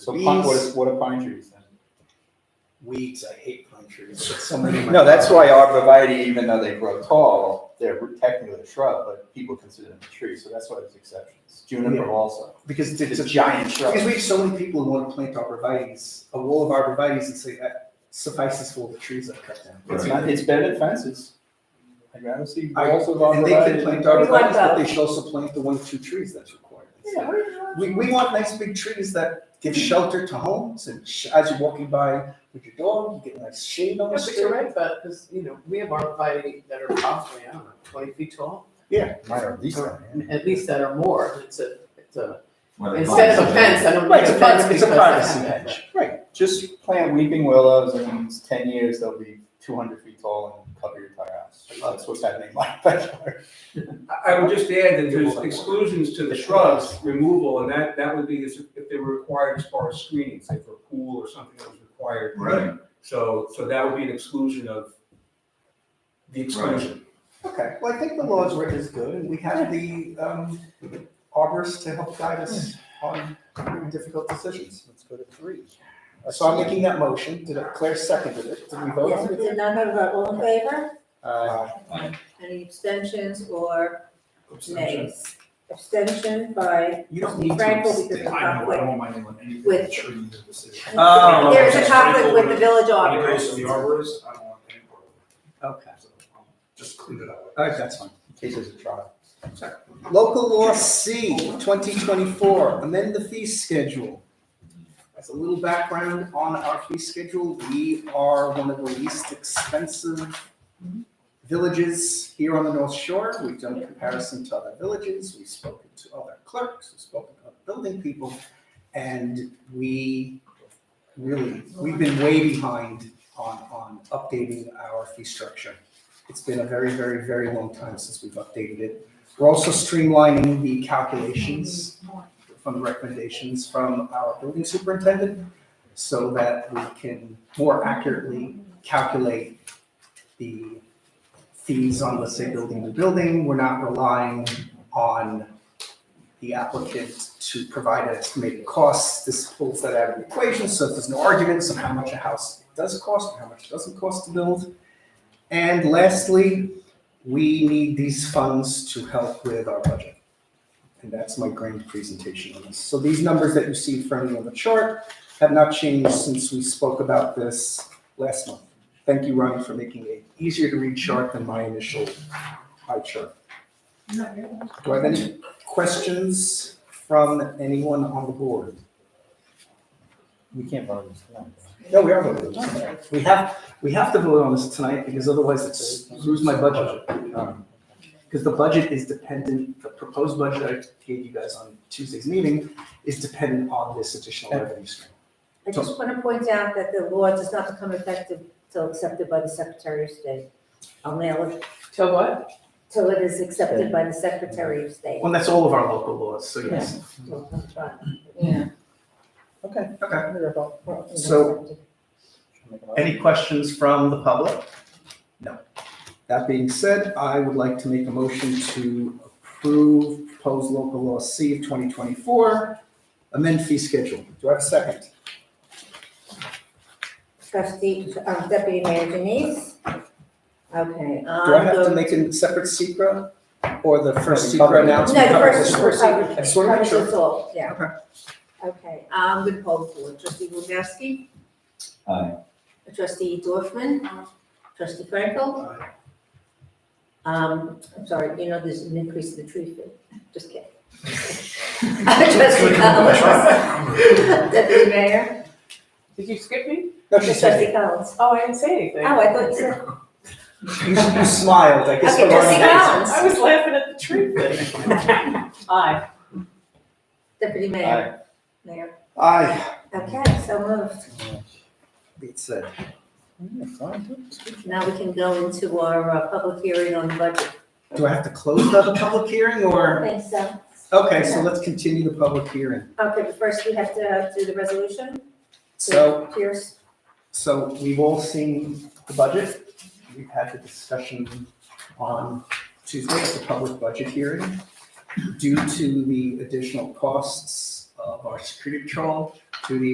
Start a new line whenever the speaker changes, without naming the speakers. So pine, what,
These-
what are pine trees then?
Weeds, I hate pine trees. It's so many in my
No, that's
yard.
why arborvitae, even though they grow tall, they're technically a shrub, but people consider them a tree, so that's why there's exceptions. Juniper
Yeah.
also,
Because
it's a
giant.
giant shrub.
Because we have so many people who want to plant arborvitae's, a wall of arborvitae's and say that suffices for all the trees I've cut down.
It's not, it's better than fences. I'd rather see
I-
walls of
And they can
arborvitae.
plant
We want
arborvitae's, but they
both.
should also plant the one or two trees that's required.
Yeah, what do you want?
We, we want nice big trees that give shelter to homes and sh- as you're walking by with your dog, you get nice shade on
Yeah,
the
but you're
street.
right about, because, you know, we have arborvitae that are probably, I don't know, twenty feet tall,
Mine are these kind, yeah.
at least that are more, and it's a, it's a,
Well, they
instead of a
call it-
fence, I don't
Right,
need
it's
a
a
fence
privacy,
because
it's a privacy
I have
hedge, right.
Just plant weeping willows and in ten years, they'll be two hundred feet tall and cover your entire house. That's what's happening in my backyard.
I I would just add that there's exclusions to the shrubs removal, and that, that would be as- if they were required as far as screening, say for a pool or something that was required.
Right,
So, so that would be an exclusion of the exclusion.
Okay, well, I think the law is written is good, and we have the um, arborist to help guide us on difficult decisions. Let's go to three. Uh, So I'm making that motion. Did I- Claire seconded it? Did we vote
Yes,
on
we
it?
did not have a vote, all in favor?
Uh,
Any abstentions or nays? Abstention by,
You don't need
Frank
to.
will be-
I know, I don't want my name on anything
With-
that triggers the decision.
Oh.
there is a conflict with the village
When it goes to the
auditor.
arborist, I don't want any part of
Okay,
it, so um, just clean it up.
all right, that's fine.
In case there's a trial.
Local law C, 2024, amend the fee schedule. As a little background on our fee schedule, we are one of the least expensive villages here on the North Shore. We've done comparison to other villages, we've spoken to other clerks, we've spoken to other building people, and we really, we've been way behind on, on updating our fee structure. It's been a very, very, very long time since we've updated it. We're also streamlining the calculations from the recommendations from our building superintendent so that we can more accurately calculate the fees on, let's say, building to building. We're not relying on the applicant to provide an estimated cost. This pulls that out of the equation, so there's no arguments on how much a house does cost and how much it doesn't cost to build. And lastly, we need these funds to help with our budget. And that's my grand presentation on this. So these numbers that you see in front of you on the chart have not changed since we spoke about this last month. Thank you, Ronnie, for making it easier to read chart than my initial pie chart. Do I have any questions from anyone on the board?
We can't vote on this tonight.
No, we are voting. We have, we have to vote on this tonight because otherwise it's, lose my budget. Because the budget is dependent, the proposed budget I gave you guys on Tuesday's meeting is dependent on this additional revenue stream.
I just want to point out that the law does not become effective till accepted by the Secretary of State. I'll mail it,
Till what?
till it is accepted by the Secretary of State.
Well, that's all of our local laws, so yes.
So, that's fine.
Okay.
Okay. So-
So,
Any questions from the public? No. That being said, I would like to make a motion to approve proposed local law C of 2024, amend fee schedule. Do I have a second?
trustee, um, deputy mayor Denise? Okay, um.
Do I have to make a separate secret or the first
No, we
secret
covered it.
No,
announcement?
the
covers
first,
this
first, I
Just wanna make sure.
Covers us all, yeah. Okay, um, good poll for trustee Wodowski,
Aye.
trustee Dorfman, trustee Frankel. Um, I'm sorry, you know, there's an increase in the tree fee, just kidding. Trustee Collins, deputy mayor,
Did you skip me?
No, she said,
trustee Collins.
Oh, I didn't say anything.
Oh, I thought you said,
you you smiled, I guess.
Okay,
we're
trustee
running out.
Collins.
I was laughing at the tree thing. Aye.
deputy mayor, mayor.
Aye,
Okay, so moved.
it's said.
Now we can go into our uh, public hearing on the budget.
Do I have to close the public hearing or?
Thanks, so.
Okay, so let's continue the public hearing.
Okay, but first we have to do the resolution.
So,
Pierce,
so we've all seen the budget. We've had the discussion on Tuesday at the public budget hearing. Due to the additional costs of our security patrol, to the